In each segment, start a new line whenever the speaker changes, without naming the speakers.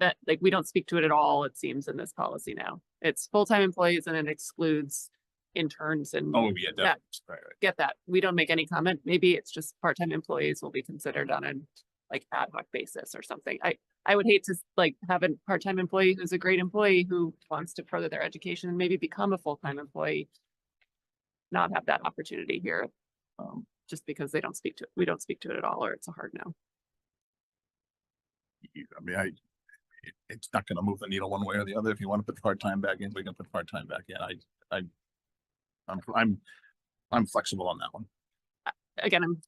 that, like, we don't speak to it at all, it seems, in this policy now. It's full-time employees and it excludes interns and
Oh, yeah,
Yeah.
definitely. Right, right.
get that. We don't make any comment. Maybe it's just part-time employees will be considered on an like ad hoc basis or something. I, I would hate to like have a part-time employee who's a great employee who wants to further their education and maybe become a full-time employee. Not have that opportunity here, um, just because they don't speak to, we don't speak to it at all, or it's a hard no.
You- I mean, I, it, it's not gonna move the needle one way or the other. If you wanna put part-time back in, we can put part-time back in. I, I, I'm, I'm, I'm flexible on that one.
Again, I'm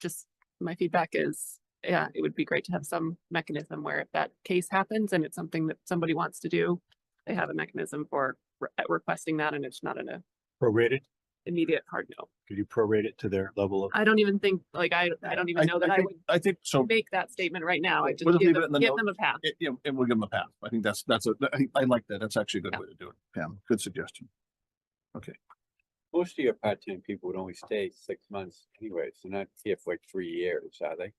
just, my feedback is, yeah, it would be great to have some mechanism where if that case happens and it's something that somebody wants to do, they have a mechanism for re- requesting that and it's not in a
prorated?
immediate hard no.
Could you prorate it to their level of?
I don't even think, like, I, I don't even know that I
think-
would
I think so.
make that statement right now. I
We'll
just
just
give
leave it in
them,
the
give
note.
them a path.
It, yeah, and we'll give them a pass. I think that's, that's a, I think, I like that. That's actually a good
Yeah.
way to do it. Pam, good suggestion.
Most of your part-time people would only stay six months anyways. They're not here for like three years, are they?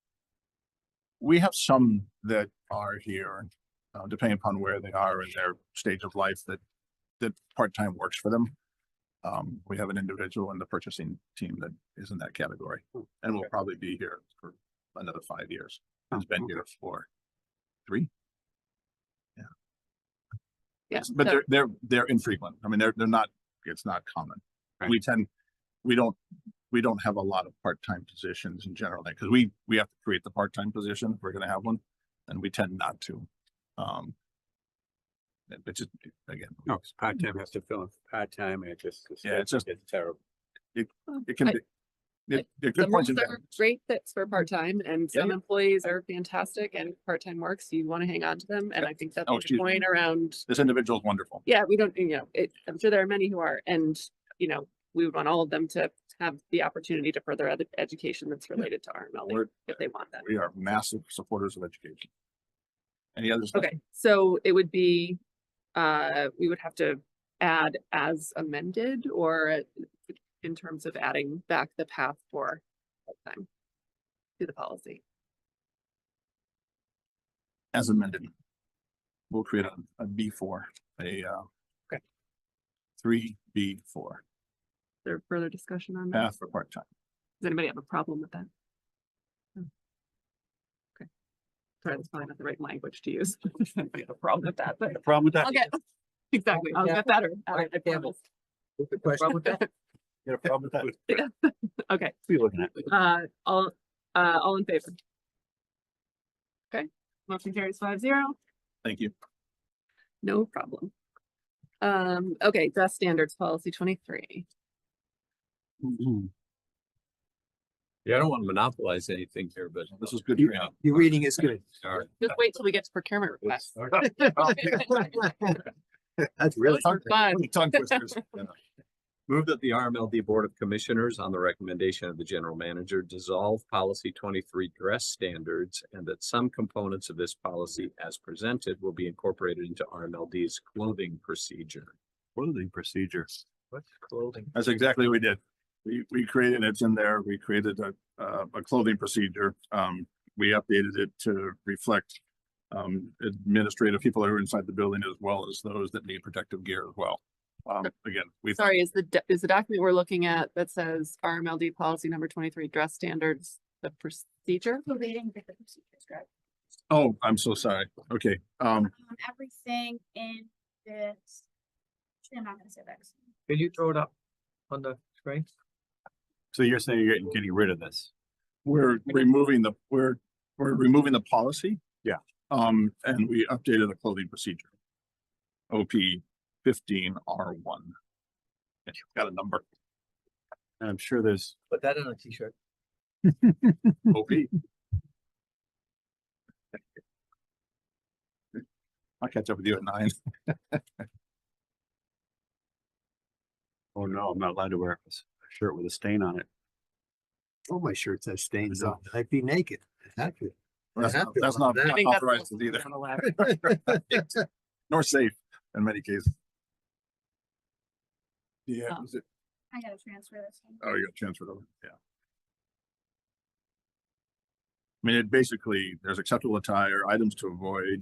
We have some that are here, uh, depending upon where they are in their stage of life that, that part-time works for them. Um, we have an individual in the purchasing team that is in that category
Hmm,
and will
okay.
probably be here for another five years.
Oh,
Has been
okay.
here for three. Yeah.
Yeah,
But
so-
they're, they're, they're infrequent. I mean, they're, they're not, it's not common.
Right.
We tend, we don't, we don't have a lot of part-time positions in general, because we, we have to create the part-time position. if We're gonna have one and we tend not to. Um. it- It's just, again,
Oh.
No, it's part-time has to fill in for part-time and it just.
Yeah, it's just-
It's terrible.
it can
I-
be. It, it
The
could point
rules
to
are great that's for part-time and
Yeah,
some
yeah.
employees are fantastic and part-time works. You want to hang on to them. And I think that's
Oh,
the
excuse me.
point around,
this individual is wonderful.
yeah, we don't, you know, it, I'm sure there are many who are and, you know, we would want all of them to have the opportunity to further ed- education that's related to RMLD
We're-
if they want that.
We are massive supporters of education. Any others?
Okay, so it would be, uh, we would have to add as amended or in terms of adding back the path for part-time to the policy.
As amended. We'll create a, a B four, a, uh.
Okay.
Three B four,
Is there further discussion on that?
path for part-time.
Does anybody have a problem with that? No. Okay. Sorry, that's probably not the right language to use. I have a problem with that, but
The problem with that?
I'll get, exactly, I'll get better. at it, I
Yeah.
promise.
What's the question?
You got a problem with that? What
Okay,
are you looking at?
uh, all, uh, all in favor? Okay, motion carries five zero.
Thank you.
No problem. Um, okay, dress standards policy twenty-three.
Mm-hmm.
Yeah, I don't want to monopolize anything here, but
This is good.
You-
training.
Your reading is good.
sorry.
Just wait till we get to procurement requests.
That's really hard.
Fun.
Tongue twisters. you know.
Move that the RMLD Board of Commissioners, on the recommendation of the general manager, dissolve policy twenty-three dress standards and that some components of this policy as presented will be incorporated into RMLD's clothing procedure.
Clothing procedure.
What's clothing?
That's exactly what we did. We, we created, it's in there, we created a, uh, a clothing procedure. Um, we updated it to reflect um, administrative people who are inside the building as well as those that need protective gear as well. Um, again, we,
Sorry, is the, do- is the document we're looking at that says RMLD policy number twenty-three dress standards, the procedure?
We're reading the procedures, right?
oh, I'm so sorry. Okay, um,
Um, everything in this. Actually, I'm not gonna say that. 'cause
Can you throw it up on the screen?
So you're saying you're getting, getting rid of this?
we're removing the, we're, we're removing the policy.
Yeah.
Um, and we updated the clothing procedure. OP fifteen R one. And you've got a number,
And I'm sure there's,
Put that on a T-shirt.
OP. I'll catch up with you at nine.
oh no, I'm not allowed to wear a s- a shirt with a stain on it.
All Oh, my shirts have stains
No.
on. it. I'd be naked. I'd have to.
That's
Yeah.
not, that's not
I
I
not
think that's
authorized
also
either,
not allowed.
nor safe in many cases. Yeah,
Um,
is it-
I gotta transfer this. one.
oh, you got transferred over, yeah. I mean, it basically, there's acceptable attire, items to avoid,